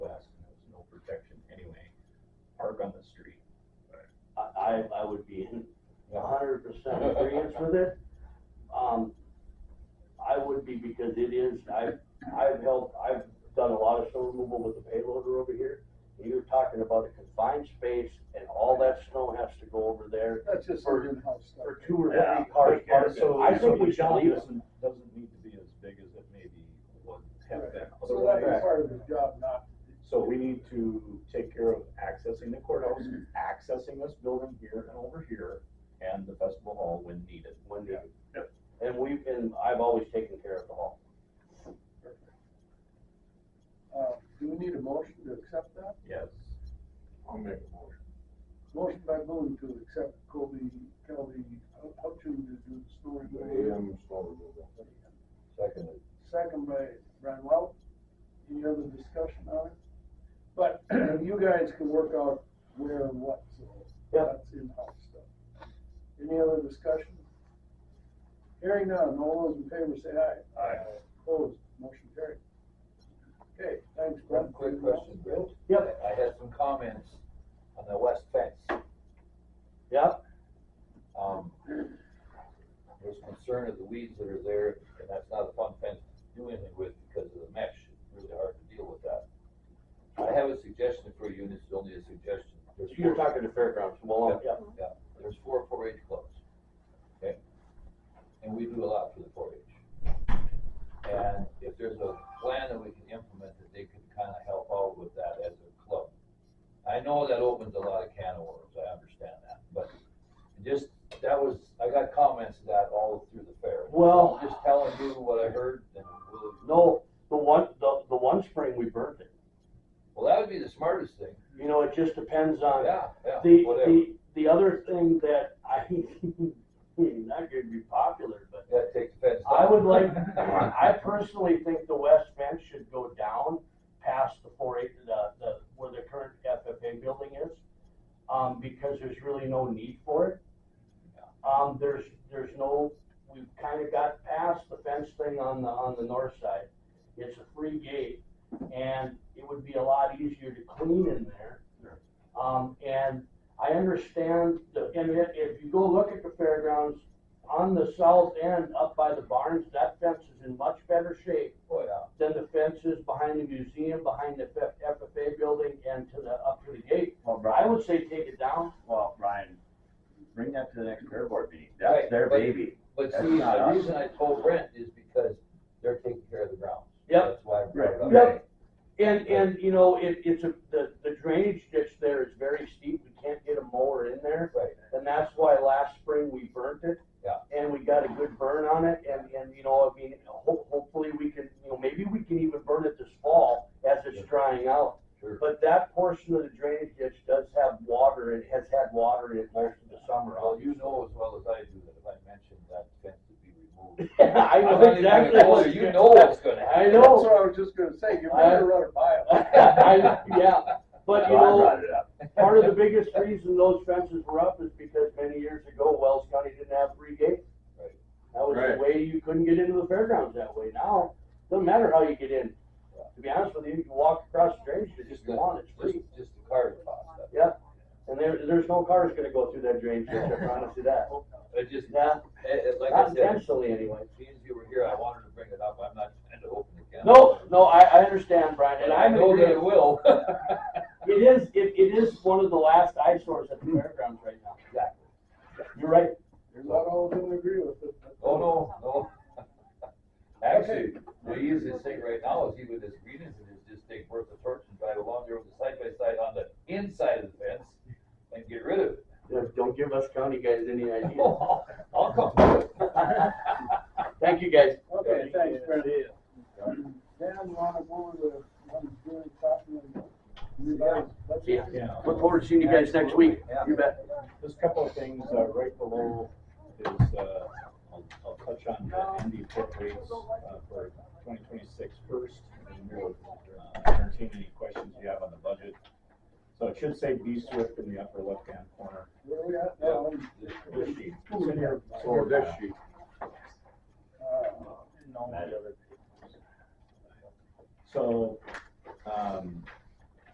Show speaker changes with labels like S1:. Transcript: S1: I, I would be in a hundred percent agreement with it. Um, I would be because it is, I've, I've helped, I've done a lot of snow removal with the payloader over here. You're talking about a confined space and all that snow has to go over there
S2: That's just
S1: For-
S2: some in-house stuff.
S1: for two or
S3: Yeah,
S1: three cars
S3: but, uh,
S1: parked.
S3: so-
S1: I think
S3: so
S1: we
S3: the
S1: should
S3: job
S1: leave it.
S3: Doesn't doesn't need to be as big as it maybe was half that.
S2: So that'd be
S3: otherwise.
S2: part of his job, not.
S3: So we need to take care of accessing the courthouse, accessing this building here and over here, and the festival hall when needed.
S1: when they. And we've been, I've always taken care of the hall.
S2: Uh, do we need a motion to accept that?
S3: Yes.
S4: I'll make a motion.
S2: Motion by Boone to accept Kobe, Kelly, Hutchins to do the snow
S4: The
S2: removal.
S4: AM snow removal.
S3: Seconded.
S2: Second by Brian Welch. Any other discussion on it? But you guys can work out where and what, so
S1: Yep.
S2: that's in-house stuff. Any other discussion? Hearing none, all those in favor say aye.
S3: Aye.
S2: Opposed, motion carried. Okay, thanks, Brent.
S5: One quick question, Bill.
S1: Yep.
S5: I had some comments on the west fence.
S1: Yep,
S5: Um, there's concern of the weeds that are there, and that's not a fun fence to do anything with because of the mesh. It's really hard to deal with that. I have a suggestion for you, and it's only a suggestion. There's
S1: you're
S5: four-
S1: talking to fairgrounds, Malone, yep.
S5: Yeah, there's four four H clubs, okay? And we do a lot for the four H. And if there's a plan that we can implement that they can kind of help out with that as a club. I know that opens a lot of can of worms, I understand that, but just, that was, I got comments of that all through the fair.
S1: Well-
S5: I'm Just telling you what I heard and we'll.
S1: No, the one, the, the one spring we burnt it.
S5: Well, that would be the smartest thing,
S1: You know, it just depends on,
S5: yeah, yeah,
S1: Uh, the,
S5: whatever,
S1: the, the other thing that I, not gonna be popular, but
S5: that takes offense.
S1: I would like, I personally think the west fence should go down past the four eight, the, the, where the current FFA building is. Um, because there's really no need for it. Um, there's, there's no, we've kinda got past the fence thing on the, on the north side. It's a free gate and it would be a lot easier to clean in there. Um, and I understand the, and if- if you go look at the fairgrounds, on the south end, up by the barns, that fence is in much better shape
S5: Oh, yeah.
S1: than the fences behind the museum, behind the F- FFA building, and to the, up to the gate.
S3: Well,
S1: I would say take it down.
S3: well, Brian, bring that to the next fair board meeting.
S5: Right,
S3: That's their
S5: but-
S3: baby.
S5: But
S3: That's
S5: see,
S3: not
S5: the
S3: us.
S5: reason I told Brent is because they're taking care of the grounds.
S1: Yep.
S5: That's why I brought it up.
S1: Yep. And, and, you know, it, it's a, the, the drainage ditch there is very steep, we can't get a mower in there.
S5: Right.
S1: And that's why last spring we burnt it.
S5: Yeah.
S1: And we got a good burn on it, and, and, you know, I mean, ho- hopefully we can, you know, maybe we can even burn it this fall as
S5: Yeah.
S1: it's drying out.
S5: Sure.
S1: But that portion of the drainage ditch does have water, it has had water in it most of the summer.
S5: Well, you know as well as I do that if I mention that fence would be removed.
S1: I
S5: I'm
S1: know
S5: not even gonna
S1: exactly
S5: go
S1: what
S5: there. You know what's gonna happen.
S1: I
S2: That's
S1: know.
S2: what I was just gonna say, you better run it by him.
S1: I, yeah, but
S3: So
S1: you
S3: I
S1: know,
S3: brought it up.
S1: part of the biggest reason those fences were up is because many years ago, Wells County didn't have free gates.
S5: Right.
S1: That was the
S4: Right.
S1: way you couldn't get into the fairgrounds that way. Now, doesn't matter how you get in. To be honest with you, you can walk across the drainage ditch if you want, it's
S5: Just,
S1: free.
S5: just the car cost. that.
S1: Yeah, and there, there's no cars gonna go through that drainage ditch, I promise you that.
S5: It just,
S1: Yeah,
S5: it, it- like
S1: not
S5: I said,
S1: intentionally anyway.
S5: since you were here, I wanted to bring it up. I'm not trying to open the can.
S1: No, no, I, I understand, Brian, and
S5: I
S1: I'm
S5: know that
S1: agreeing.
S5: it will.
S1: It is, it, it is one of the last eyesores at the fairgrounds right now. Exactly. You're right.
S2: You're not all gonna agree with it. but-
S5: Oh, no, no. Actually, the easiest thing right now is even this greenness and is just take worth the torch and drive along there with the side by side on the inside of the fence and get rid of it.
S1: Yeah, Don't give us county guys any ideas.
S5: I'll I'll come.
S1: Thank you, guys.
S2: Okay, thanks, Brent.
S1: Yeah.
S2: Dan, you wanna go over the, one good copy and revise?
S1: See ya.
S3: Yeah.
S1: Look forward to seeing you guys next week. You bet.
S3: Just a couple of things, uh, right below is, uh, I'll, I'll touch on the Indy foot rates, uh, for 2026 first. and we'll, uh, Entertain any questions you have on the budget. So it should say B Swift in the upper left-hand corner.
S2: Where we at now?
S3: This sheet.
S2: Cool, yeah. Oh,
S4: So this sheet,
S2: Uh,
S3: So, um,